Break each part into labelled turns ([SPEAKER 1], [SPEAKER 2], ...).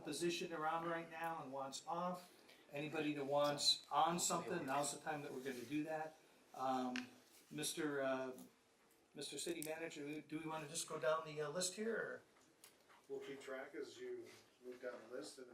[SPEAKER 1] position they're on right now and wants off. Anybody that wants on something, now's the time that we're gonna do that. Um, Mr. Uh, Mr. City Manager, do we wanna just go down the uh, list here, or?
[SPEAKER 2] We'll keep track as you move down the list and,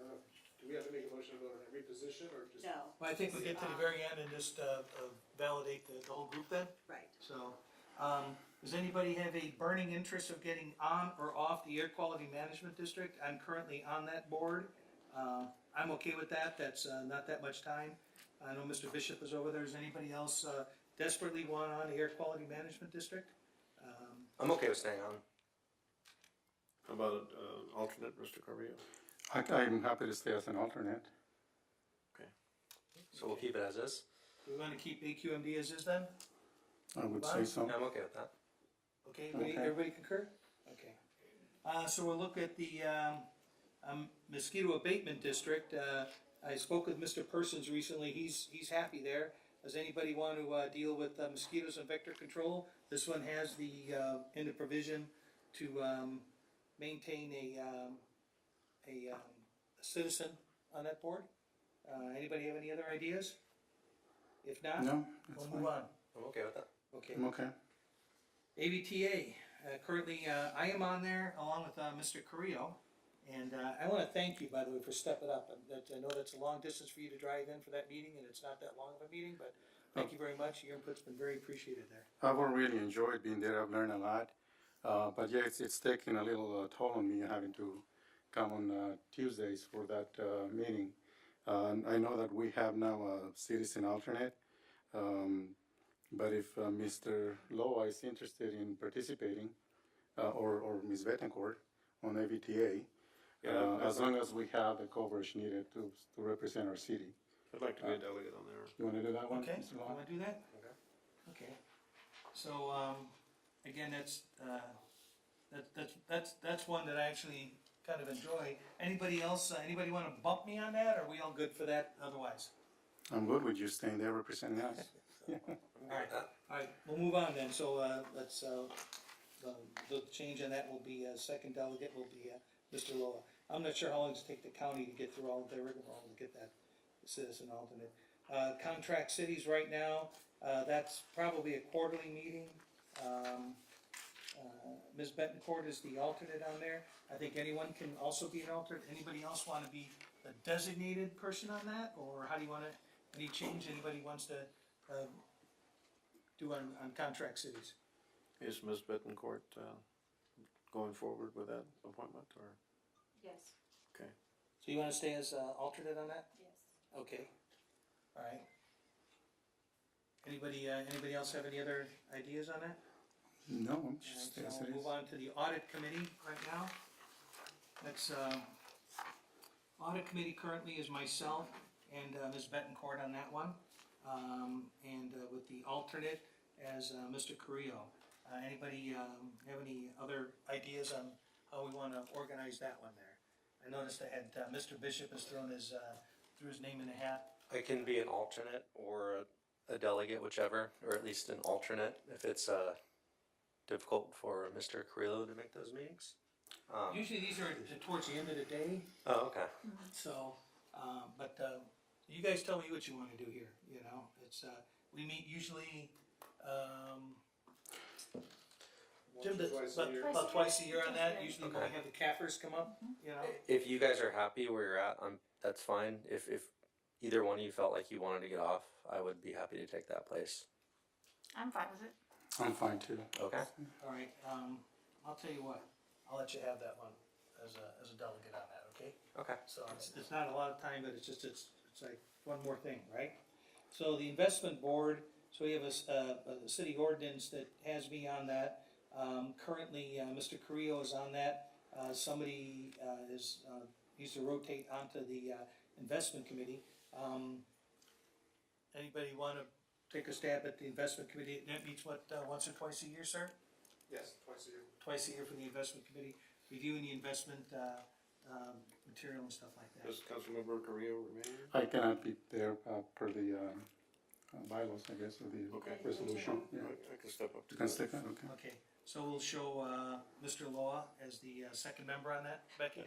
[SPEAKER 2] uh, do we have to make a motion to vote on every position or just?
[SPEAKER 3] No,
[SPEAKER 1] Well, I think we get to the very end and just, uh, uh, validate the, the whole group then,
[SPEAKER 3] right.
[SPEAKER 1] so. Um, does anybody have a burning interest of getting on or off the air quality management district? I'm currently on that board. Uh, I'm okay with that, that's, uh, not that much time. I know Mr. Bishop is over there, is anybody else, uh, desperately want on the air quality management district? Um,
[SPEAKER 4] I'm okay with staying on.
[SPEAKER 2] How about, uh, alternate, Mr. Carrillo?
[SPEAKER 5] I, I'm happy to stay as an alternate.
[SPEAKER 4] So we'll keep it as is.
[SPEAKER 1] Do we wanna keep AQMD as is then?
[SPEAKER 5] I would
[SPEAKER 1] Wow.
[SPEAKER 5] say so.
[SPEAKER 4] I'm okay with that.
[SPEAKER 1] Okay, everybody,
[SPEAKER 5] Okay.
[SPEAKER 1] everybody concur? Okay. Uh, so we'll look at the, um, um, mosquito abatement district, uh, I spoke with Mr. Persons recently, he's, he's happy there. Does anybody want to, uh, deal with uh, mosquitoes and vector control? This one has the, uh, in the provision to, um, maintain a, um, a, um, citizen on that board. Uh, anybody have any other ideas? If not,
[SPEAKER 5] No, that's
[SPEAKER 1] we'll
[SPEAKER 5] fine.
[SPEAKER 1] move on.
[SPEAKER 4] I'm okay with that.
[SPEAKER 1] Okay.
[SPEAKER 5] I'm okay.
[SPEAKER 1] ABTA, uh, currently, uh, I am on there along with, uh, Mr. Carrillo. And, uh, I wanna thank you, by the way, for stepping up. And That, I know that's a long distance for you to drive in for that meeting and it's not that long of a meeting, but thank you very much. Your input's been very appreciated there.
[SPEAKER 5] I've really enjoyed being there. I've learned a lot. Uh, but yeah, it's, it's taking a little uh, toll on me having to come on uh, Tuesdays for that uh, meeting. Uh, and I know that we have now a citizen alternate. Um, but if uh, Mr. Loa is interested in participating, uh, or, or Ms. Betancourt on AVTA, uh, as long as we have the coverage needed to, to represent our city. Uh,
[SPEAKER 2] I'd like to be a delegate on there.
[SPEAKER 5] You want to do that one,
[SPEAKER 1] Okay,
[SPEAKER 5] Mr.
[SPEAKER 1] you
[SPEAKER 5] Loa?
[SPEAKER 1] wanna do that?
[SPEAKER 2] Okay.
[SPEAKER 1] Okay. So, um, again, that's, uh, that, that's, that's, that's one that I actually kind of enjoy. Anybody else, uh, anybody wanna bump me on that? Are we all good for that otherwise?
[SPEAKER 5] I'm good with you staying there representing us.
[SPEAKER 1] Alright, alright, we'll move on then, so, uh, let's, uh, the, the change on that will be, uh, second delegate will be, uh, Mr. Loa. I'm not sure how long it's take the county to get through all of their rigmarole to get that citizen alternate. Uh, contract cities right now, uh, that's probably a quarterly meeting, um, uh, Ms. Betancourt is the alternate on there, I think anyone can also be an alternate, anybody else wanna be a designated person on that, or how do you wanna, any change, anybody wants to, uh, do on, on contract cities.
[SPEAKER 2] Is Ms. Bettencourt, uh, going forward with that appointment or?
[SPEAKER 3] Yes,
[SPEAKER 1] So you wanna stay as, uh, alternate on that?
[SPEAKER 3] yes.
[SPEAKER 1] Okay. Alright. Anybody, uh, anybody else have any other ideas on that?
[SPEAKER 5] No, I'm just
[SPEAKER 1] Alright,
[SPEAKER 5] as
[SPEAKER 1] So
[SPEAKER 5] it
[SPEAKER 1] we'll
[SPEAKER 5] is.
[SPEAKER 1] move on to the audit committee right now. That's, um, audit committee currently is myself and, uh, Ms. Betancourt on that one. Um, and, uh, with the alternate as, uh, Mr. Carrillo. Uh, anybody, um, have any other ideas on how we wanna organize that one there? I noticed I had, uh, Mr. Bishop has thrown his, uh, threw his name in the hat.
[SPEAKER 4] I can be an alternate or a delegate, whichever, or at least an alternate if it's uh, difficult for Mr. Carrillo to make those meetings. Um,
[SPEAKER 1] Usually these are towards the end of the day,
[SPEAKER 4] oh, okay.
[SPEAKER 1] So, um, but, uh, you guys tell me what you wanna do here, you know, it's, uh, we meet usually, um, Jim,
[SPEAKER 2] Once or
[SPEAKER 1] does-
[SPEAKER 2] twice a
[SPEAKER 1] about,
[SPEAKER 2] year?
[SPEAKER 1] about twice a year Mm-hmm. on that,
[SPEAKER 3] Okay.
[SPEAKER 1] usually when we have the cappers come up, you know?
[SPEAKER 4] If you guys are happy where you're at, I'm, that's fine. If, if either one of you felt like you wanted to get off, I would be happy to take that place.
[SPEAKER 6] I'm fine with it.
[SPEAKER 5] I'm fine too.
[SPEAKER 4] Okay.
[SPEAKER 1] Alright, um, I'll tell you what, I'll let you have that one as a, as a delegate on that, okay?
[SPEAKER 4] Okay.
[SPEAKER 1] So it's, it's not a lot of time, but it's just, it's, it's like one more thing, right? So the investment board, so we have a, s- uh, a city ordinance that has me on that. Um, currently, uh, Mr. Carrillo is on that. Uh, somebody, uh, is, uh, needs to rotate onto the, uh, investment committee. Um, anybody wanna take a stab at the investment committee? That meets what, uh, once or twice a year, sir?
[SPEAKER 2] Yes, twice a year.
[SPEAKER 1] Twice a year for the investment committee, reviewing the investment, uh, um, material and stuff like that.
[SPEAKER 2] Does Councilmember Carrillo remain?
[SPEAKER 5] I cannot be there uh, per the um, uh, bylaws, I guess, or
[SPEAKER 2] Okay.
[SPEAKER 5] the resolution. Yeah.
[SPEAKER 2] I, I can step up to
[SPEAKER 5] You
[SPEAKER 2] that.
[SPEAKER 5] can stick that, okay.
[SPEAKER 1] Okay, so we'll show uh, Mr. Law as the uh, second member on that, Becky?